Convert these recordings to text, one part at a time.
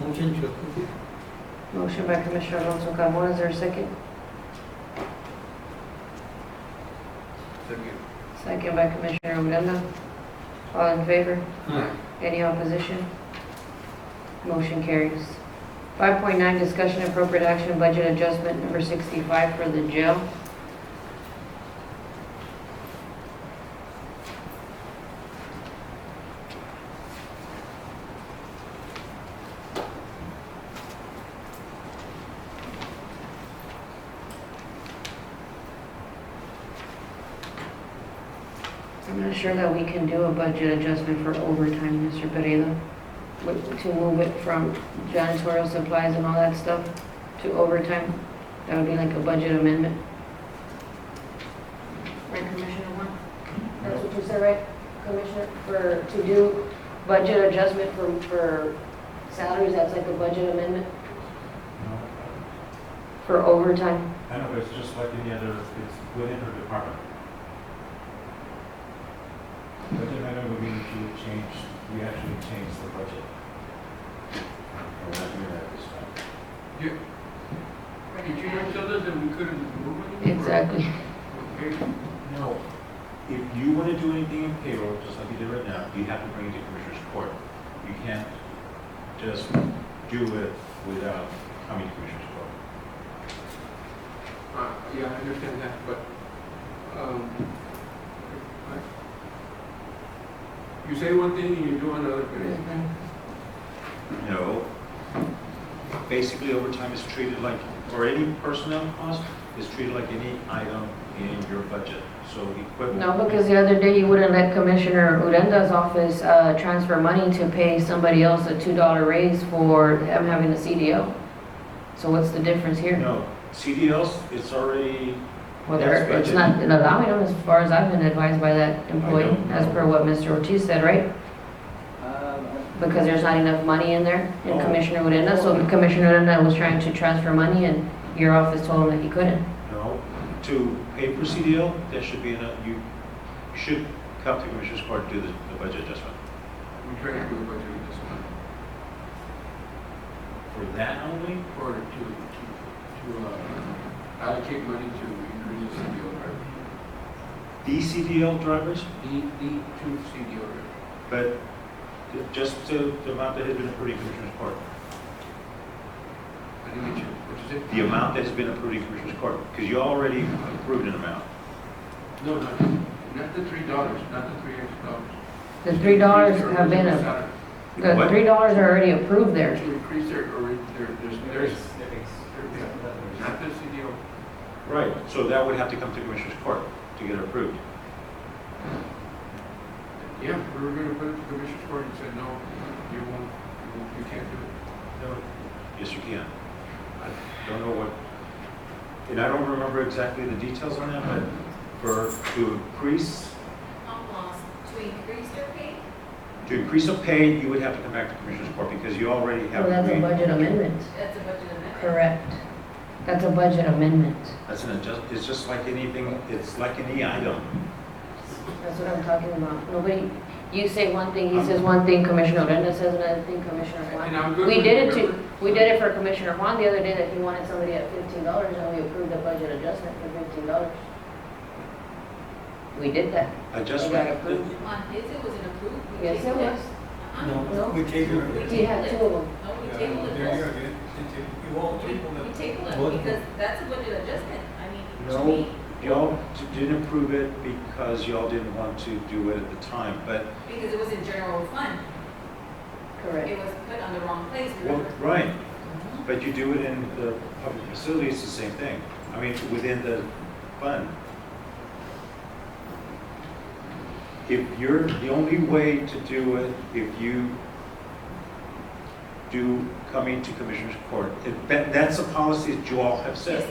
Motion to approve. Motion by Commissioner Alonso Carmona, is there a second? Second. Second by Commissioner Odena. All in favor? Aye. Any opposition? Motion carries. 5.9, discussion and appropriate action, budget adjustment number 65 for the jail. I'm not sure that we can do a budget adjustment for overtime, Mr. Pereira, with- to move it from janitorial supplies and all that stuff to overtime. That would be like a budget amendment. Right, Commissioner Juan? That's what you said, right, Commissioner, for, to do budget adjustment for, for salaries, that's like a budget amendment No, for overtime? I know, but it's just like any other, it's within her department. But then I know we need to change, we actually changed the budget. And we're not doing that this time. Did you not tell us that we couldn't move it? Mm-hmm. Exactly. Okay. No. If you want to do anything in payroll, just like you did right now, you have to bring it to Commissioner's Court. You can't just do it without coming to Commissioner's Court. Uh, Yeah, I understand that, but, um, I- you say one thing and you do another, Pereira. No. Basically, overtime is treated like, or any personnel cost is treated like any item in your budget. So equipment. No, because the other day you wouldn't let Commissioner Uranda's office uh, transfer money to pay somebody else a $2 raise for them having a CDO. So what's the difference here? No, CDLs, it's already, Well, they're- That's it's not allowing them as far as I've been advised by that I employee, don't as know. Um, per what Mr. Ortiz said, right? Because there's not enough money in there in Oh. Commissioner Uranda, so Commissioner Uranda was trying to transfer money and your office told him that he couldn't. no, to pay for CDL, that should be, enough. you should come to Commissioner's Court to do the the budget adjustment. we try to do a budget with this one, For that only, or to, to, to uh, allocate money to increase the CDO rate. the CDL drivers, The, the two CDO rate. but just the the amount that has been approved in Commissioner's Court. I didn't get you, what you said? The amount that has been approved in Commissioner's Court, because you already approved an amount. No, not, not the three dollars, not the three extra The dollars. $3 have been, a- a. the What? $3 are already approved there. To increase their, or their, their, their, not the CDO. Right, so that would have to come to Commissioner's Court to get approved. Yeah, we were gonna put it to Commissioner's Court and said, no, you won't, you won't, you can't do it. Yes, you can. I don't know what, and I don't remember exactly the details on that, but for, to increase, I'm lost. To increase their pay? to increase a pay, you would have to come back to Commissioner's Court because you already have Well, that's a agreed. budget amendment. That's a budget amendment. Correct. That's a budget amendment. That's an adjust, it's just like anything, it's like any item. That's what I'm talking about. Nobody, you say one thing, he says one thing, Commissioner Odena says another thing, Commissioner And I'm Juan. good We with did it to, whatever. we did it for Commissioner Juan the other day that he wanted somebody at fifteen dollars and we approved a budget adjustment for fifteen dollars. We did that. Adjustment, approved. On his, it wasn't approved. We Yes, it tabled was. Uh-huh. No. No, we table it. We had two of them. No, Oh, we Yeah, tabled it. Uh, There you go, dude. It's- it- You won't table We it. we tabled Both. it because that's a budget adjustment. I mean, to No. me, y'all didn't approve it because y'all didn't want to do it at the time, but, because it was in general fund. Correct. It was put on the wrong place, well, remember? right, But you do it in the public facility, it's the same thing. I mean, within the fund. If you're, the only way to do it, if you do coming to commissioner's court, it- that- that's a policy that you all have Yes. set.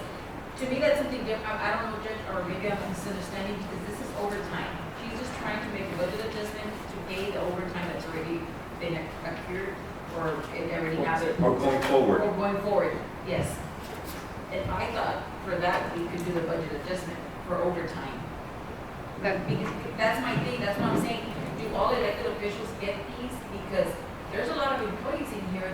To me, that's something different. I I don't know, Judge, or maybe I'm misunderstanding because this is overtime. She's just trying to make a budget adjustment to pay the overtime that's already been accrued or it already happened. Or going forward. Or going forward, yes. And I thought for that, we could do the budget adjustment for overtime. That, because, that's my thing, that's what I'm saying. Do all elected officials get these? Because there's a lot of employees in here